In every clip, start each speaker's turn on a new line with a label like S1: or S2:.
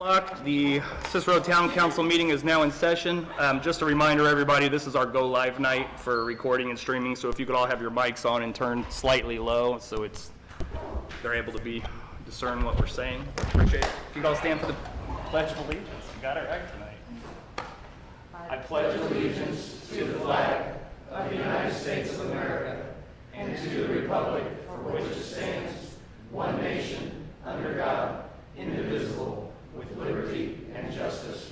S1: o'clock. The Cicero Town Council meeting is now in session. Um, Just a reminder, everybody, this is our go-live night for recording and streaming, so if you could all have your mics on and turned slightly low, so it's, they're able to be, discern what we're saying. Appreciate it. If you could all stand for the pledge of allegiance, you got it right tonight. I pledge allegiance. If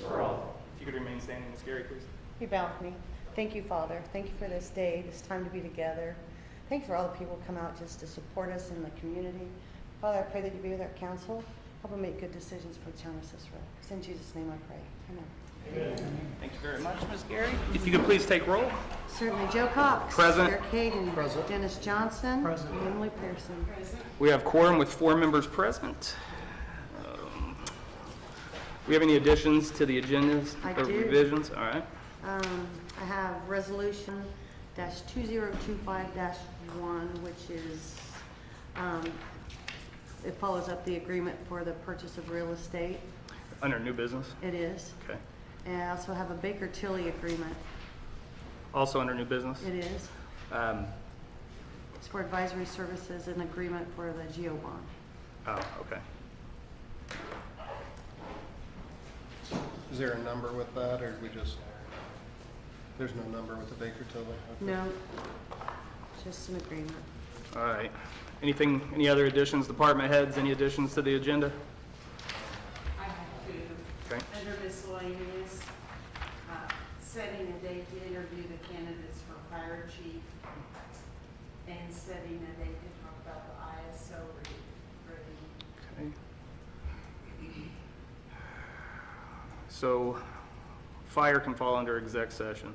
S1: you could remain standing, Ms. Gary, please.
S2: You bound me. Thank you, Father. Thank you for this day, this time to be together. Thank you for all the people who come out just to support us in the community. Father, I pray that you be with our council. Help them make good decisions for the town of Cicero. It's in Jesus' name I pray. Amen.
S1: Thank you very much, Ms. Gary. If you could please take roll.
S2: Certainly, Joe Cox.
S1: Present.
S2: Eric Hayden. Dennis Johnson. and Emily Pearson.
S1: We have quorum with four members present. Um, We have any additions to the agendas?
S2: I
S1: or
S2: do.
S1: Revisions, all right.
S2: Um, I have resolution dash two zero two five dash one, which is, um, it follows up the agreement for the purchase of real estate.
S1: Under new business,
S2: It is.
S1: okay.
S2: And I also have a Baker Tilly agreement.
S1: Also under new business.
S2: It is.
S1: Um,
S2: It's for advisory services and agreement for the GEO bond.
S1: Oh, okay.
S3: Is there a number with that, or do we just, there's no number with the Baker Tilly? Okay.
S2: No, just an agreement.
S1: All right. Anything, any other additions, department heads, any additions to the agenda?
S4: I have to,
S1: Okay.
S4: under miscellaneous, uh, setting a date to interview the candidates for fire chief and setting a date to talk about the ISO re- review.
S1: Okay. So fire can fall under exec session.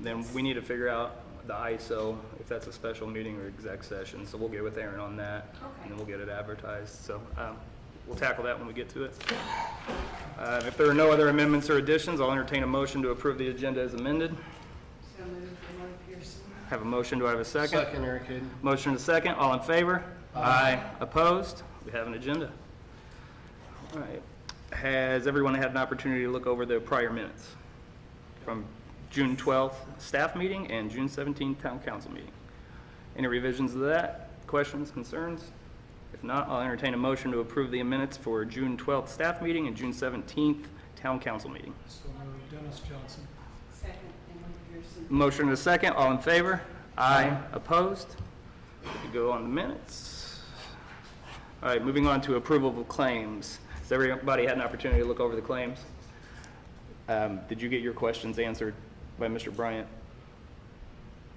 S1: Then we need to figure out the ISO, if that's a special meeting or exec session. So we'll get with Aaron on that. And then we'll get it advertised. So um, we'll tackle that when we get to it. Uh, If there are no other amendments or additions, I'll entertain a motion to approve the agenda as amended.
S4: So moved, Emily Pearson.
S1: Have a motion, do I have a second?
S3: Second, Eric Hayden.
S1: Motion to second, all in favor? Aye. Opposed? We have an agenda. All right. Has everyone had an opportunity to look over the prior minutes from June 12th staff meeting and June 17th town council meeting? Any revisions to that? Questions, concerns? If not, I'll entertain a motion to approve the minutes for June 12th staff meeting and June 17th town council meeting.
S5: So moved, Dennis Johnson.
S4: Second, Emily Pearson.
S1: Motion to second, all in favor? Aye. Opposed? We Go on the minutes. All right, moving on to approval of claims. Has everybody had an opportunity to look over the claims? Um, Did you get your questions answered by Mr. Bryant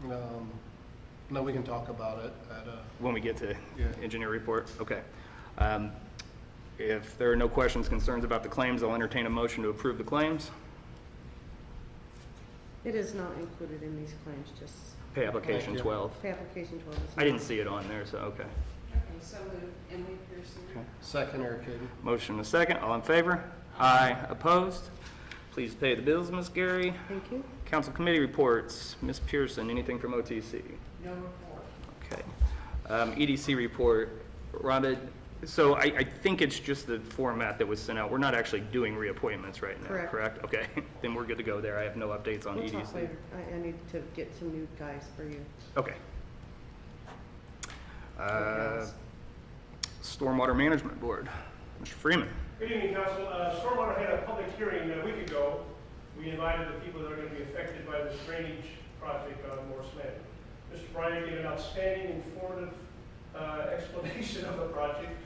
S3: Um, No, we can talk about it at a,
S1: when we get to
S3: Yeah.
S1: engineer report? Okay. Um, If there are no questions, concerns about the claims, I'll entertain a motion to approve the claims.
S2: It is not included in these claims, just
S1: Pay application
S3: Thank you.
S1: 12.
S2: the application 12 is.
S1: I didn't see it on there, so, okay.
S4: Okay, so moved, Emily Pearson.
S1: Okay.
S3: second, Eric Hayden.
S1: Motion a second, all in favor? Aye. Opposed? Please pay the bills, Ms. Gary.
S2: Thank you.
S1: Council committee reports, Ms. Pearson, anything from OTC?
S4: No report.
S1: Okay. Um, EDC report, Rhonda, so I, I think it's just the format that was sent out. We're not actually doing reappointments right now,
S2: Correct.
S1: correct? Okay, then we're good to go there. I have no updates on E
S2: We'll
S1: EDC.
S2: talk later. I, I need to get some new guys for you.
S1: Okay. Uh, Stormwater Management Board, Mr. Freeman.
S6: Good evening, Council. Uh, Stormwater had a public hearing uh, a week ago. We invited the people that are going to be affected by this drainage project on Morse Land. Mr. Bryant gave an outstanding informative uh, explanation of the project.